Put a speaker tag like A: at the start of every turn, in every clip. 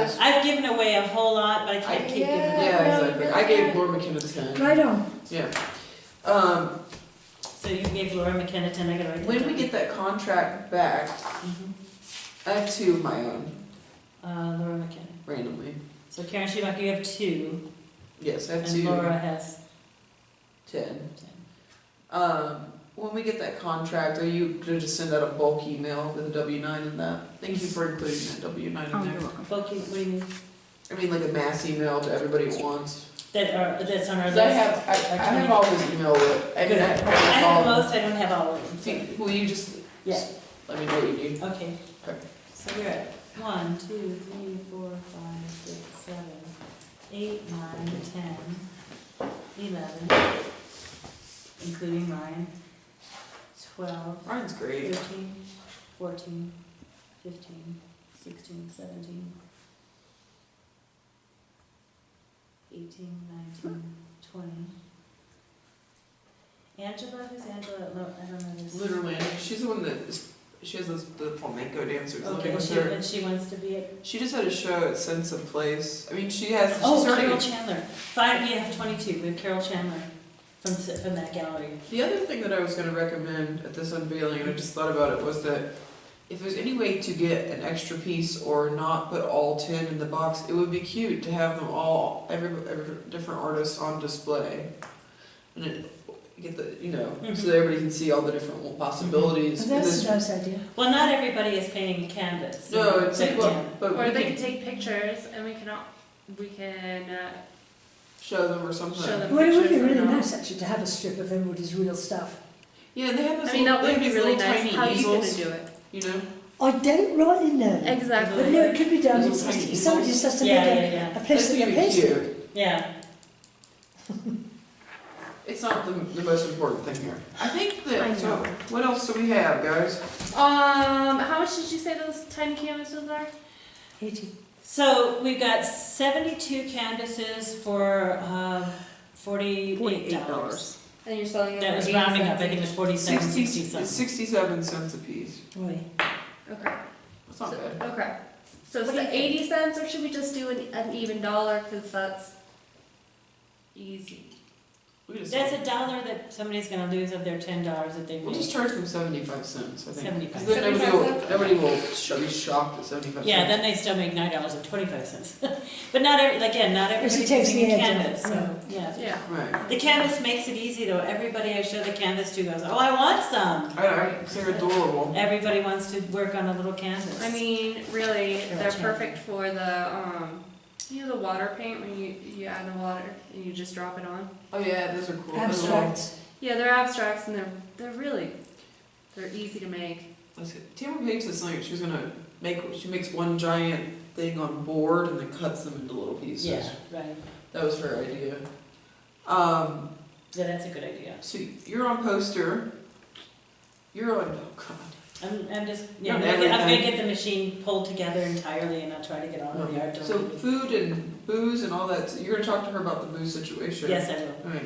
A: I've given away a whole lot, but I can't keep giving
B: Yeah,
A: away.
B: no, you
C: exactly.
B: really
C: I
B: can't.
C: gave Laura McKenna ten.
D: Right on.
C: Yeah. Um,
A: So you gave Laura McKenna ten, I gotta write that
B: When we
A: down.
B: get that contract back,
A: Mhm.
B: I have two of my own
A: Uh, Laura McKenna.
B: randomly.
A: So Karen Schumacher, you have two,
B: Yes, I have
A: and Laura
B: two,
A: has
B: ten.
A: ten.
B: Um, when we get that contract, are you gonna just send out a bulk email with a W nine in that? Thank you for including that W nine in
A: Oh,
B: there.
A: Bulky, what do you mean?
B: I mean, like a mass email to everybody at once.
A: That are, that's on our
B: Cause
A: list.
B: I have, I, I have all this email that, I mean, I have
A: I have
B: all of
A: most, I don't have all
B: them.
A: of them.
B: See, will you just?
A: Yeah.
B: Let me know what you need.
A: Okay,
B: Okay.
A: so we're at one, two, three, four, five, six, seven, eight, nine, ten, eleven, including mine, twelve,
B: Ryan's great.
A: 13, 14, 15, 16, 17, 18, 19, 20. Angela, who's Angela? Lo- I don't know this.
B: Literally, she's the one that is, she has those, the flamenco dancers
A: Okay,
B: living
A: and
B: with
A: she,
B: her.
A: and she wants to be at,
B: She just had a show at Sense of Place. I mean, she has, she's
A: oh, Carol
B: already.
A: Chandler. Five, we have twenty-two, we have Carol Chandler from, s- from that gallery.
B: The other thing that I was gonna recommend at this unveiling, and I just thought about it, was that if there's any way to get an extra piece or not put all ten in the box, it would be cute to have them all, every, every different artists on display. And it, get the, you know, so that everybody can see all the different possibilities. And
D: Mm-hmm. That's
B: this-
D: a nice idea.
A: Well, not everybody is painting canvas.
B: No, it's,
A: but, yeah.
B: but, but
C: Or
B: we
C: they
B: can
C: could take pictures and we can all, we can uh,
B: show them or something.
C: show them
D: Well, it
C: pictures.
D: would be
C: and
D: really
C: all.
D: nice actually to have a strip of everybody's real stuff.
B: Yeah, they have those
C: I mean, that
B: little, they
C: would
B: have
C: be
B: these
C: really
B: little
C: nice.
B: tiny
C: How are you gonna
B: easels,
C: do it?
B: you know?
D: I don't rightly know. But no,
C: Exactly.
D: it could be done,
B: Little
D: it's
B: tiny
D: just, somebody
B: easels.
D: just has to
A: Yeah,
D: make
A: yeah,
D: a,
A: yeah.
D: a place to
B: That'd
D: be
B: be
D: placed in.
B: cute.
A: Yeah,
B: It's not the, the most important thing here. I think that,
C: I
B: so,
C: know.
B: what else do we have, guys?
C: Um, how much did you say those tiny canvases are?
D: Eighty.
A: so we've got seventy-two canvases for, um, forty-eight dollars.
C: And you're selling them
A: That
C: for
A: was
C: eighty
A: rounding up, I
C: cents
A: think it
C: each.
A: was forty-seven,
B: Sixty,
A: sixty
B: it's
A: something.
B: sixty-seven cents a piece.
D: Oi.
C: Okay.
B: That's not
C: So-
B: bad.
C: Okay. So is
A: What do you
C: it eighty cents, or should we just do an, an even dollar? Because that's easy.
B: We just,
A: That's a dollar that somebody's gonna lose of their ten dollars that they
B: we'll
A: made.
B: just charge them seventy-five cents, I think.
A: 75.
B: 'Cause then nobody
C: 75
B: will,
C: cents?
B: nobody will sh- be shocked at seventy-five cents.
A: Yeah, then they still make nine dollars and twenty-five cents. But not every, again, not
D: Because it
A: everybody's
D: takes the
A: using
D: edge
A: canvas,
D: off,
A: so, yeah.
C: Yeah.
B: Right.
A: The canvas makes it easy though. Everybody I show the canvas to goes, oh, I want some.
B: I know, they're adorable.
A: Everybody wants to work on a little canvas.
C: I mean, really, they're
A: Gotcha.
C: perfect for the um, you know, the water paint when you you add the water and you just drop it on.
B: Oh, yeah, those are cool. Those are all-
D: Abstract.
C: Yeah, they're abstracts and they're they're really they're easy to make.
B: Let's see. Tamara Page says something. She's gonna make. She makes one giant thing on board and then cuts them into little pieces.
A: Yeah, right.
B: That was her idea. Um,
A: Yeah, that's a good idea.
B: so you're on poster. You're on. Oh God.
A: I'm, I'm just, yeah, I'm
B: Not
A: gonna- I'm gonna
B: everything.
A: get the machine pulled together entirely and I'll try to get on with the art.
B: So food and booze and all that. So you're gonna talk to her about the booze situation.
A: Yes, I will.
B: All right.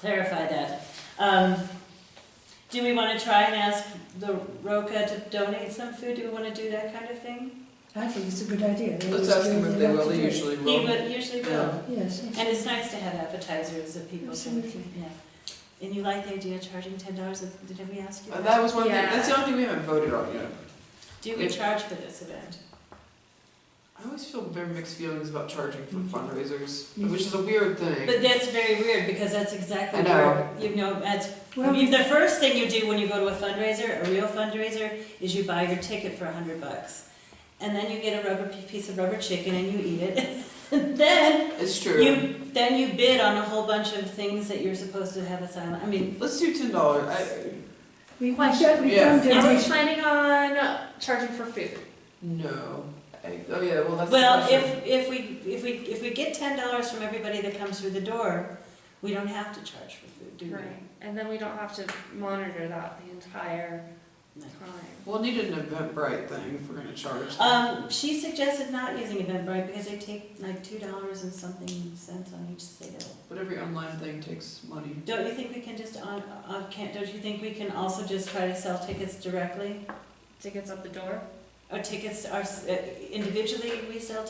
A: clarify that. Um, do we wanna try and ask the Roca to donate some food? Do we wanna do that kind of thing?
D: I think it's a good idea. They
B: Let's
D: always
B: ask
D: do
B: them
D: what
B: if they
D: like
B: will.
D: to
B: They
D: do.
B: usually
A: He
B: will.
A: would, usually
B: Yeah.
A: will.
D: Yes. yes.
A: And it's nice to have appetizers that people can,
D: Absolutely.
A: yeah. And you like the idea of charging ten dollars, did we ask you
B: Uh,
A: that?
B: that was one
C: Yeah.
B: thing. That's the only thing we haven't voted on yet.
A: Do we
B: if-
A: charge for this event?
B: I always feel very mixed feelings about charging for
D: Mhm.
B: fundraisers,
D: Mhm.
B: which is a weird thing.
A: Mm-hmm. But that's very weird, because that's exactly
B: I know.
A: where, you know, that's, I
D: Well,
A: mean, the first thing you do when you go to a fundraiser, a real fundraiser, is you buy your ticket for a hundred bucks. And then you get a rubber, piece of rubber chicken and you eat it. Then
B: it's true.
A: you, then you bid on a whole bunch of things that you're supposed to have a silent, I mean,
B: Let's do ten dollars. I
D: we, we
C: Question.
D: don't, we
B: Yeah.
D: don't
C: Are we
D: donate.
C: planning on charging for food?
B: no. I, oh yeah. Well, that's.
A: Well,
B: that's true.
A: if, if we, if we, if we get ten dollars from everybody that comes through the door, we don't have to charge for food, do we?
C: Right. And then we don't have to monitor that the entire
A: No.
C: time.
B: We'll need an Eventbrite thing if we're gonna charge.
A: Um, she suggested not using Eventbrite because they take like two dollars and something cents on each sale.
B: But every online thing takes money.
A: Don't you think we can just on, on, can't, don't you think we can also just try to sell tickets directly?
C: Tickets up the door.
A: Or tickets are, s- uh, individually we sell